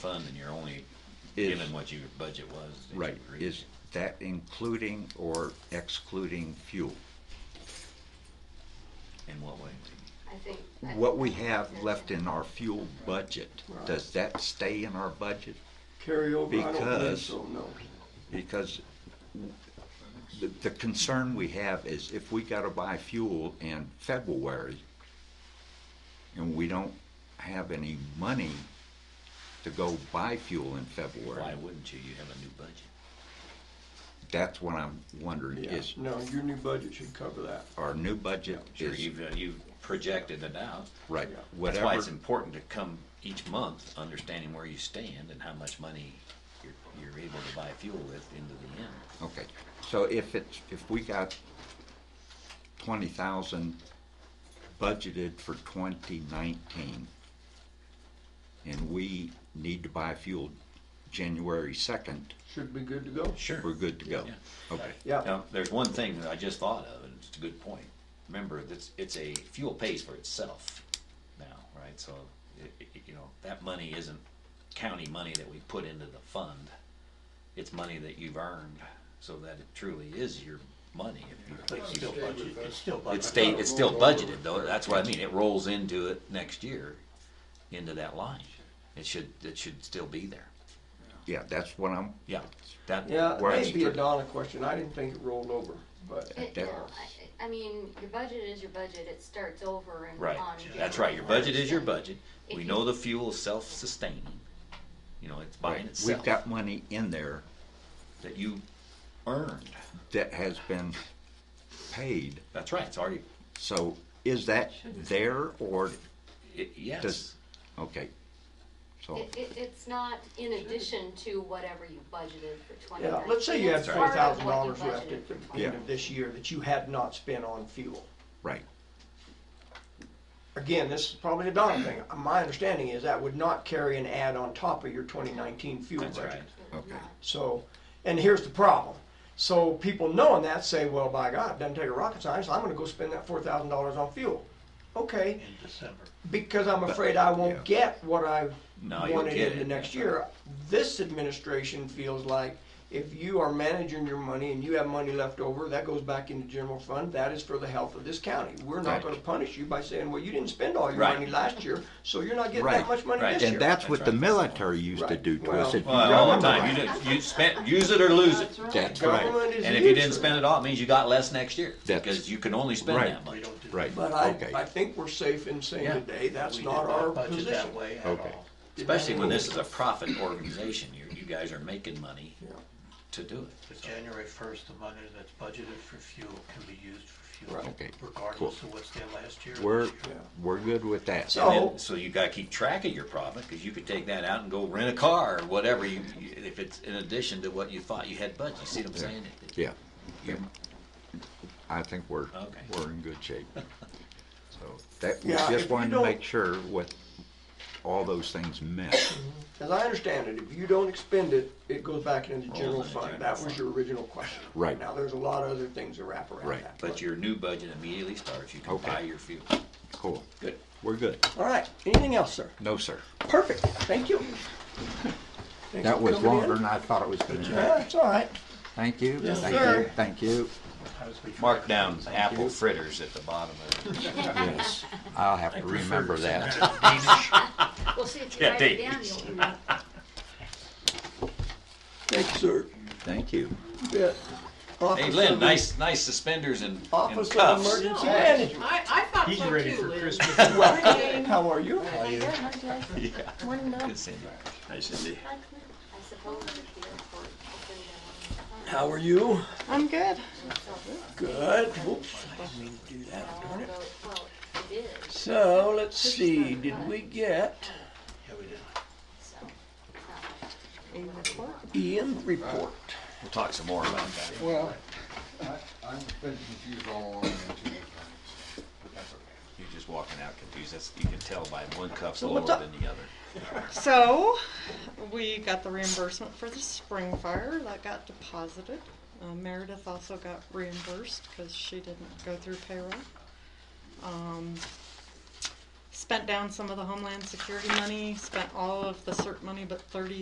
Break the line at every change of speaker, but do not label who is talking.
fund, then you're only
Is-
given what your budget was. that you
Right,
agreed
is that including or excluding fuel?
to. In what way?
I think. I
What
think
we
that's-
have
that's
left
it.
in our fuel budget, does that stay in our budget?
Carry over, I don't think
Because-
so, no.
Because the, the concern we have is if we gotta buy fuel in February and we don't have any money to go buy fuel in
Why
February,
wouldn't you? You have a new budget.
that's what I'm wondering
Yeah,
is,
no, your new budget should cover that.
our new budget
Sure,
is,
you've, uh, you've projected it out.
right,
That's
That's why
whatever,
it's important to come each month, understanding where you stand and how much money you're, you're able to buy fuel with into the end.
okay. So if it's, if we got twenty thousand budgeted for twenty nineteen, and we need to buy fuel January second,
Should be good to go.
Sure.
we're good to go.
Yeah.
Okay,
Yeah,
Now, there's one thing that I just thought of, and it's a good point. Remember, that's, it's a, fuel pays for itself now, right? So, it, it- you know, that money isn't county money that we put into the fund. It's money that you've earned, so that it truly is your money. if you-
It's still budgeted, it's still budgeted.
It's state, it's still budgeted though, that's what I mean, it rolls into it next year, into that line. It should, it should still be there.
yeah, that's what I'm,
Yeah, that,
yeah,
Where it's
that'd be a
strict.
Donna question, I didn't think it rolled over, but,
It-
that-
no, I, I mean, your budget is your budget, it starts over and
Right,
on.
that's
January
right, your budget is your
first.
budget, we
If
know
you-
the fuel is self-sustaining, you know, it's buying
right, we've
itself,
got money in there
that you earned,
that has been paid,
that's right, it's already,
so is that there or,
it, yes.
Does- okay? So,
It, it, it's not in addition to whatever you budgeted for twenty
yeah,
nineteen.
let's say you had
It's
four
part of
thousand
what you
dollars left
budgeted
at the
for
end
Yeah.
of this year that you had not spent on fuel.
right,
Again, this is probably a Donna thing, my understanding is that would not carry an ad on top of your twenty nineteen fuel
That's
budget.
right,
okay,
So, and here's the problem. So people knowing that say, well, by God, it doesn't take a rocket science, I'm gonna go spend that four thousand dollars on fuel. Okay,
In December.
because I'm afraid I won't
yeah.
get what I
No, you'll
wanted
get
in the
it.
next year. This administration feels like if you are managing your money and you have money left over, that goes back into general fund, that is for the health of this county. We're
Right.
not gonna punish you by saying, well, you didn't spend all your
Right.
money last year, so you're not getting
Right.
that much money
Right.
this year.
and that's what the
That's right.
military used to
Right.
do to us.
Well-
if you
well, all the
remember
time, you didn't, you spent, use it or lose it.
That's right,
Government is
And if you didn't
useless.
spend it all, it means you got less next year,
That's-
because you can only spend
Right.
that
We
much.
don't do that.
right,
But I,
okay.
I think we're safe in saying
Yeah.
today, that's
We
not
did
our
budget
position.
that way at
Okay.
all.
Especially when this is a profit organization, you, you guys are making money
Yeah.
to do it.
But January first, the money that's budgeted for fuel can be used for fuel.
Right.
Okay, cool.
Regardless of what's there last year. or
We're,
this year.
we're good with that.
So-
And then, so you gotta keep track of your profit, cause you could take that out and go rent a car or whatever you, you- if it's in addition to what you thought you had budget, you see what I'm saying?
Yeah. I think we're,
Okay.
we're in good shape. So that, we
Yeah, if
just
you
wanted to
don't-
make sure what all those things meant.
As I understand it, if you don't expend it, it goes back into the
Rolls
general
into the
fund.
general
That was
fund.
your original question.
Right.
Now, there's a lot of other things that wrap around
Right.
that.
But your new budget immediately starts, you can
Okay.
buy your fuel.
Cool.
Good.
We're good.
All right, anything else, sir?
No, sir.
Perfect, thank you. Thanks
That
for
was
coming in.
longer than I thought it was gonna be.
Yeah, it's all right.
Thank you.
Yes,
Thank you.
sir.
Thank you.
Sometimes we
Mark
forget
down
things.
apple fritters at the bottom of it.
Yes. I'll have to remember that.
Danish.
Well, see, if you
Yeah,
write it
Dave.
down, you'll remember.
Thank you, sir.
Thank you.
You bet. Office
Hey
of
Lynn,
the-
nice, nice suspenders and and
Office of
cuffs.
Emergency
No,
Management.
I, I thought
He's
so
ready
too,
for
Lynn.
Christmas.
Welcome, how are you?
Morning, Bill.
Good seeing you.
I suppose if the airport opened at one time.
How are you?
I'm good.
Good. Whoops, I didn't mean to do that, darn it.
Although, well, it is,
So, let's see, did we get?
Yeah, we did.
so, it's not like
Ian report.
We'll talk some more about that.
Well, I, I've been confused all along and two times, but that's okay.
You're just walking out confused, that's, you can tell by one cuff's
So
lower
what's up?
than the other.
So, we got the reimbursement for the spring fire that got deposited. Uh, Meredith also got reimbursed because she didn't go through payroll. Um, spent down some of the Homeland Security money, spent all of the CERT money but thirty